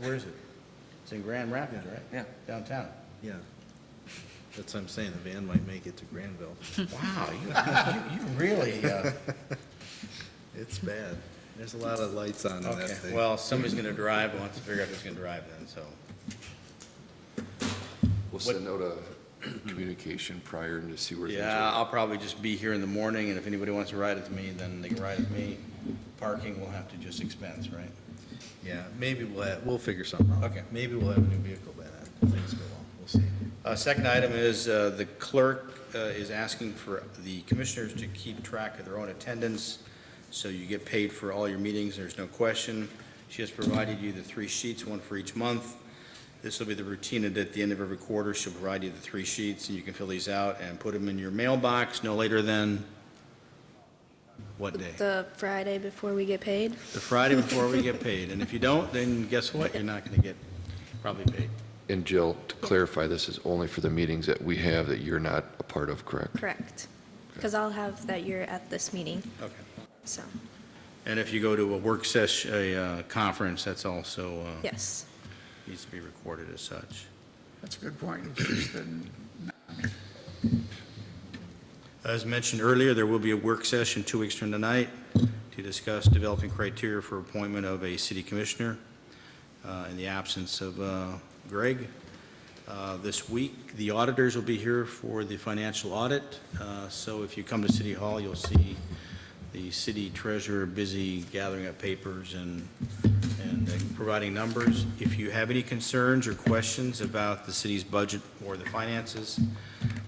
Where is it? It's in Grand Rapids, right? Yeah. Downtown. Yeah. That's what I'm saying, the van might make it to Granville. Wow, you, you you really, uh, It's bad. There's a lot of lights on in that okay. thing. Well, somebody's gonna drive, we'll have to figure out who's gonna drive then, so. We'll send out a communication prior and to see where things Yeah, are. I'll probably just be here in the morning, and if anybody wants to ride with me, then they can ride with me. Parking will have to just expense, right? Yeah, maybe we'll, ha- we'll figure something out. Okay. Maybe we'll have a new vehicle by then, things go well, we'll see. Uh, Second item is uh, the clerk uh, is asking for the commissioners to keep track of their own attendance, so you get paid for all your meetings, there's no question. She has provided you the three sheets, one for each month. This will be the routine, and at the end of every quarter, she'll provide you the three sheets, and you can fill these out and put them in your mailbox no later than, what day? The Friday before we get paid? The Friday before we get paid, and if you don't, then guess what? You're not going to get probably paid. And Jill, to clarify, this is only for the meetings that we have that you're not a part of, correct? Correct. Because I'll have that you're at this meeting, Okay. so, And if you go to a work session, a uh, conference, that's also, uh, yes. needs to be recorded as such. That's a good point. It's just that As mentioned earlier, there will be a work session two weeks from tonight to discuss developing criteria for appointment of a city commissioner uh, in the absence of uh, Greg. Uh, This week, the auditors will be here for the financial audit, Uh, so if you come to City Hall, you'll see the city treasurer busy gathering up papers and, and uh, providing numbers. If you have any concerns or questions about the city's budget or the finances,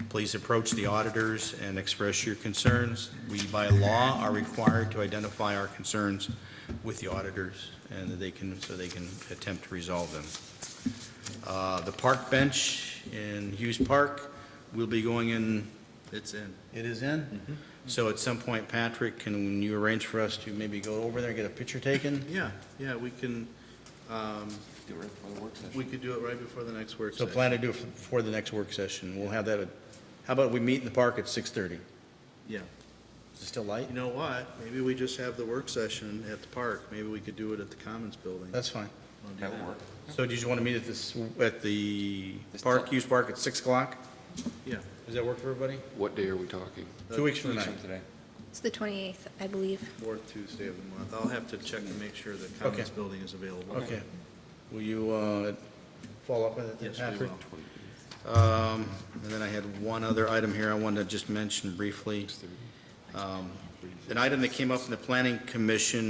please approach the auditors and express your concerns. We, by law, are required to identify our concerns with the auditors, and that they can, so they can attempt to resolve them. Uh, The park bench in Hughes Park will be going in, It's in. it is in? So at some point, Patrick, can you arrange for us to maybe go over there and get a picture taken? Yeah, yeah, we can, um, we could do it right before the next work So session. plan to do it before the next work session. We'll have that, at- how about we meet in the park at 6:30? Yeah. Is it still light? You know what? Maybe we just have the work session at the park. Maybe we could do it at the Commons Building. That's fine. Wanna do That'll work. So do you just want to meet at this, at the This park, time. Hughes Park at 6 o'clock? Yeah. Does that work for everybody? What day are we talking? Uh, Two weeks from tonight. today. Mm-hmm. It's the 28th, I believe. Fourth Tuesday of the month. I'll have to check and make sure the Commons Okay. Building is available. Okay. Will you uh, follow up with it, Yes, we Patrick? will. Um, And then I had one other item here I wanted to just mention briefly. Um, An item that came up in the planning commission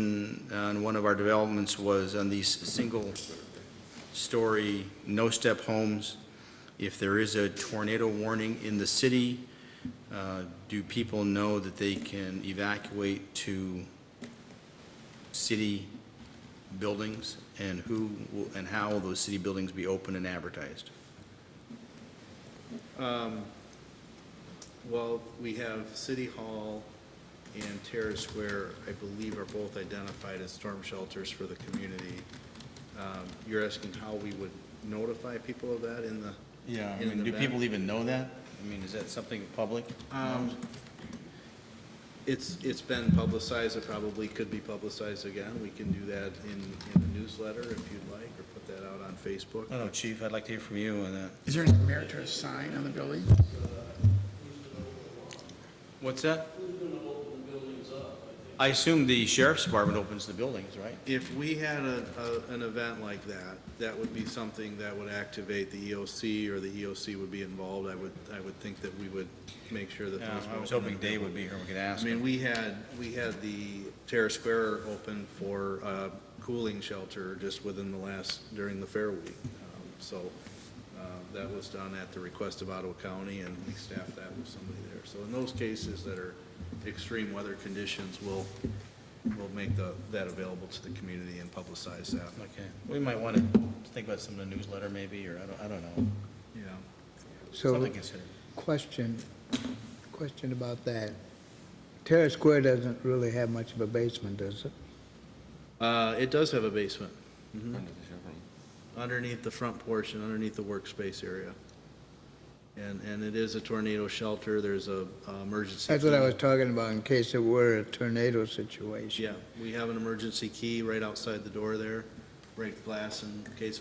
on one of our developments was on these single-story, no-step homes. If there is a tornado warning in the city, uh, do people know that they can evacuate to city buildings? And who, will- and how will those city buildings be open and advertised? Um, Well, we have City Hall and Terrace Square, I believe, are both identified as storm shelters for the community. Um, You're asking how we would notify people of that in the, Yeah, I in mean, the do back. people even know that? I mean, is that something public? Um, It's, it's been publicized, it probably could be publicized again. We can do that in, in the newsletter if you'd like, or put that out on Facebook. I don't know, chief, I'd like to hear from you on that. Is there any merit to a sign on the building? What's that? I assume the sheriff's department opens the buildings, right? If we had a, a, an event like that, that would be something that would activate the EOC, or the EOC would be involved, I would, I would think that we would make sure that those. Yeah, I were was open. hoping Dave would be here, we could I ask mean, him. we had, we had the Terrace Square open for a cooling shelter just within the last, during the Fair Week. Um, So, uh, that was done at the request of Ottawa County, and we staffed that with somebody there. So in those cases that are extreme weather conditions, we'll, we'll make the, that available to the community and publicize that, Okay, we might want to think about some of the newsletter maybe, or I don't, I don't know, you know. So, something to consider. question, question about that. Terrace Square doesn't really have much of a basement, does it? Uh, it does have a basement. Underneath the front portion, underneath the workspace area. And, and it is a tornado shelter, there's a uh, emergency. That's what I key. was talking about, in case there were a tornado situation. Yeah, we have an emergency key right outside the door there, break glass in case